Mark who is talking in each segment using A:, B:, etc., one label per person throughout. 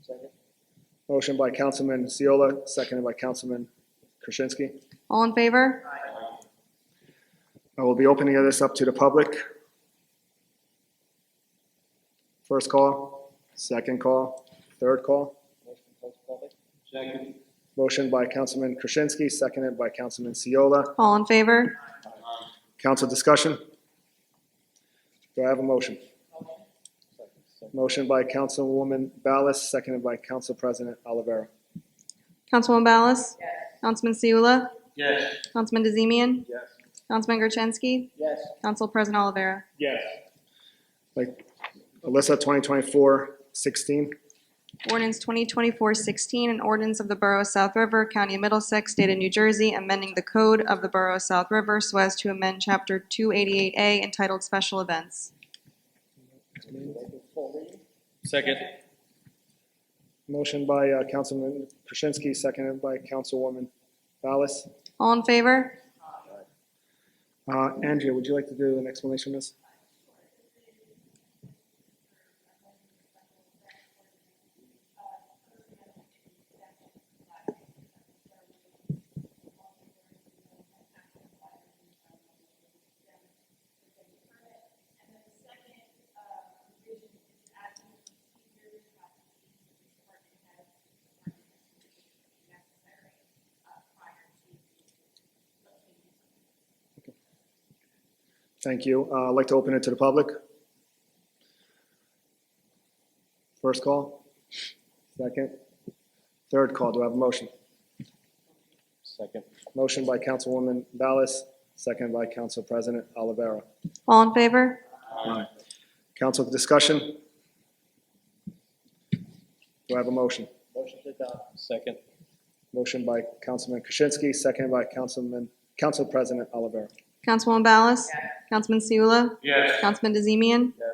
A: Second. Motion by Councilman Seola, seconded by Councilman Krasinski.
B: All in favor?
A: I will be opening this up to the public. First call, second call, third call.
C: Second.
A: Motion by Councilman Krasinski, seconded by Councilman Seola.
B: All in favor?
A: Council discussion? Do I have a motion? Motion by Councilwoman Ballas, seconded by Council President Olivera.
B: Councilwoman Ballas? Yes. Councilman Siula,
C: Yes.
B: Councilman DeZemian?
C: Yes.
B: Councilman Gertenski?
C: Yes.
B: Council President Olivera?
C: Yes.
A: Like Alyssa, 2024-16,
B: Ordinance 2024-16, an ordinance of the Borough of South River, County of Middlesex, State of New Jersey, amending the code of the Borough of South River so as to amend Chapter 288A entitled Special Events.
C: Second.
A: motion by uh, Councilman Krasinski, seconded by Councilwoman Ballas.
B: All in favor?
A: Uh, Andrea, would you like to do an explanation of this? Thank you. Uh, I'd like to open it to the public. First call, second, third call. Do I have a motion?
C: Second.
A: Motion by Councilwoman Ballas, second by Council President Olivera.
B: All in favor?
A: Council discussion? Do I have a motion?
C: Motion to adopt. Second.
A: Motion by Councilman Krasinski, second by Councilman, Council President Olivera.
B: Councilwoman Ballas? Councilman Siula,
C: Yes.
B: Councilman DeZemian?
C: Yes.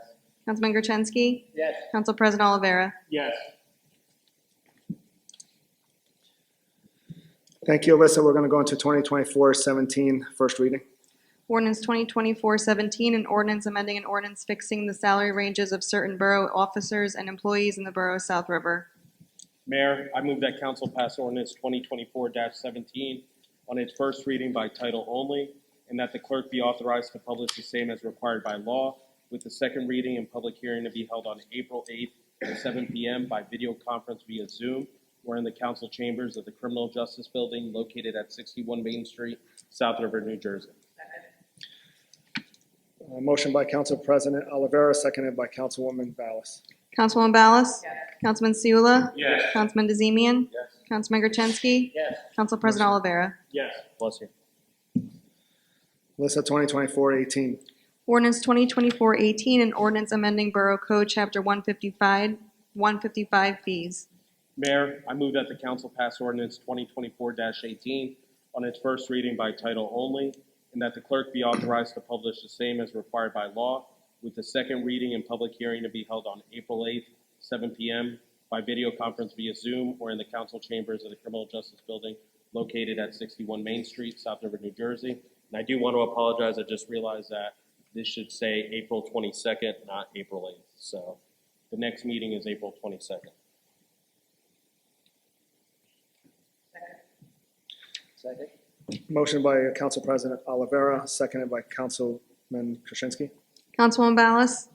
B: Councilman Gertenski?
C: Yes.
B: Council President Olivera?
C: Yes.
A: Thank you, Alyssa. We're going to go into 2024-17, first reading.
B: Ordinance 2024-17, an ordinance amending an ordinance fixing the salary ranges of certain borough officers and employees in the Borough of South River.
D: Mayor, I move that council pass ordinance twenty twenty-four seventeen on its first reading by title only, and that the clerk be authorized to publish the same as required by law, with the second reading and public hearing to be held on April eighth at seven P M by video conference via Zoom, or in the council chambers of the Criminal Justice Building located at sixty-one Main Street, South River, New Jersey.
A: Uh, Motion by Council President Olivera, seconded by Councilwoman Ballas.
B: Councilwoman Ballas? Councilman Siula,
C: Yes.
B: Councilman DeZemian?
C: Yes.
B: Councilman Gertenski?
C: Yes.
B: Council President Olivera?
C: Yes.
D: Bless you.
A: Alyssa, 2024-18,
B: Ordinance 2024-18, an ordinance amending Borough Code Chapter 155, 155 fees.
D: Mayor, I move that the council pass ordinance twenty twenty-four eighteen on its first reading by title only, and that the clerk be authorized to publish the same as required by law, with the second reading and public hearing to be held on April eighth, seven PM, by video conference via Zoom or in the council chambers of the Criminal Justice Building located at sixty-one Main Street, South River, New Jersey. And I do want to apologize, I just realized that this should say April twenty-second, not April eighth, so the next meeting is April twenty-second.
C: Second.
A: motion by Council President Olivera, seconded by Councilman Krasinski.
B: Councilwoman Ballas?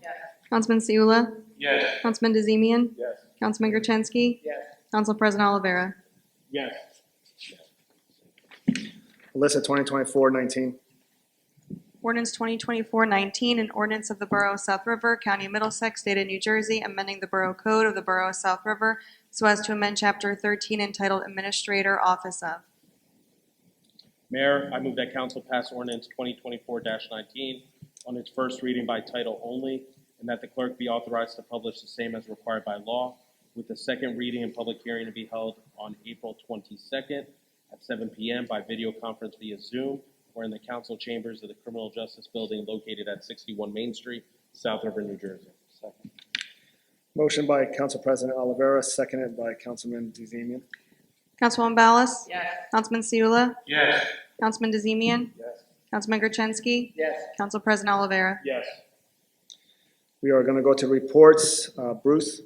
B: Councilman Siula,
C: Yes.
B: Councilman DeZemian?
C: Yes.
B: Councilman Gertenski?
C: Yes.
B: Council President Olivera?
C: Yes.
A: Alyssa, 2024-19,
B: Ordinance 2024-19, an ordinance of the Borough of South River, County of Middlesex, State of New Jersey, amending the Borough Code of the Borough of South River so as to amend Chapter 13 entitled Administrator Office of.
D: Mayor, I move that council pass ordinance twenty twenty-four nineteen on its first reading by title only, and that the clerk be authorized to publish the same as required by law, with the second reading and public hearing to be held on April twenty-second at seven PM by video conference via Zoom or in the council chambers of the Criminal Justice Building located at sixty-one Main Street, South River, New Jersey. Second.
A: motion by Council President Olivera, seconded by Councilman DeZemian.
B: Councilwoman Ballas? Councilman Siula,
C: Yes.
B: Councilman DeZemian? Councilman Gertenski?
C: Yes.
B: Council President Olivera?
C: Yes.
A: We are going to go to reports. Uh, Bruce,